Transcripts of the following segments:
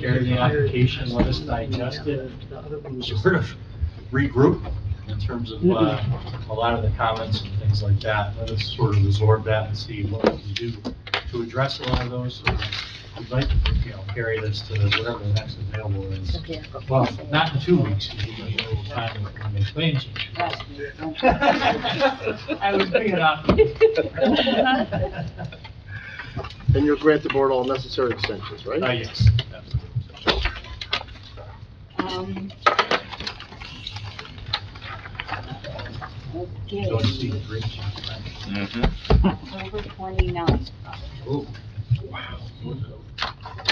Carry the application, let us digest it, sort of regroup in terms of uh, a lot of the comments and things like that. Let us sort of absorb that and see what we can do to address a lot of those. So We'd like to, you know, carry this to whatever the next available is. Well, not in two weeks, because we have a little time with the main claims. I was picking up. And you'll grant the board all necessary extensions, right? Uh, yes. Um, Okay, Don't see the green sheet, right? October twenty-nine, Oh,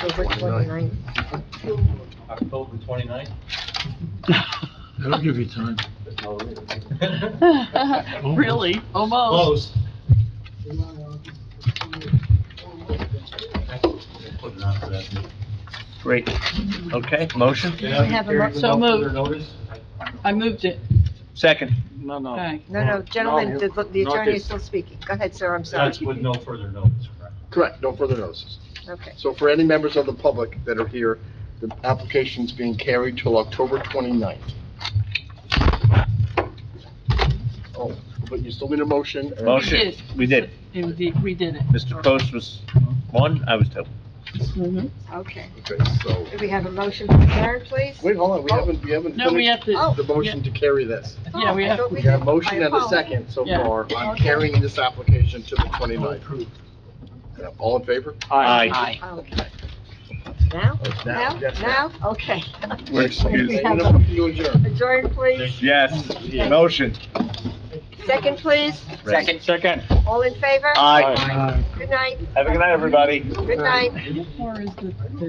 October 29th. October 29th? That'll give you time. Really? Almost. Close. Putting on for that. Great. Okay, motion? Can I have a carry mo- the no so moved. further notice? I moved it. Second. No, Oh. no. Okay. No, no, gentlemen, the the not attorney this. is still speaking. Go ahead, sir, I'm sorry. That's with no further notice, correct? Correct, no further notices. Okay. So for any members of the public that are here, the application's being carried till October 29th. Oh, but you still need a motion. and- Motion. Yes. Oh, We did. Indeed, we did it. Mr. Post was one, I was two. Mm-hmm. Okay. Okay, so, Do we have a motion to adjourn, please? wait, hold on, we haven't, we haven't No, we finished have to, Oh. the motion to carry this. yeah, we Oh, I have, thought We did. got a motion and I a apologize. second so Yeah. far on carrying this application to the 29th. Yeah, All in favor? Aye. aye. Okay. Now? Now? Yes, ma'am. Now? Okay. We're We excused. have a- You adjourn. Adjourn, please. Yes, motion. Second, please. Second. Second. All in favor? Aye. Good night. Have a good night, everybody. Good night. Where is the?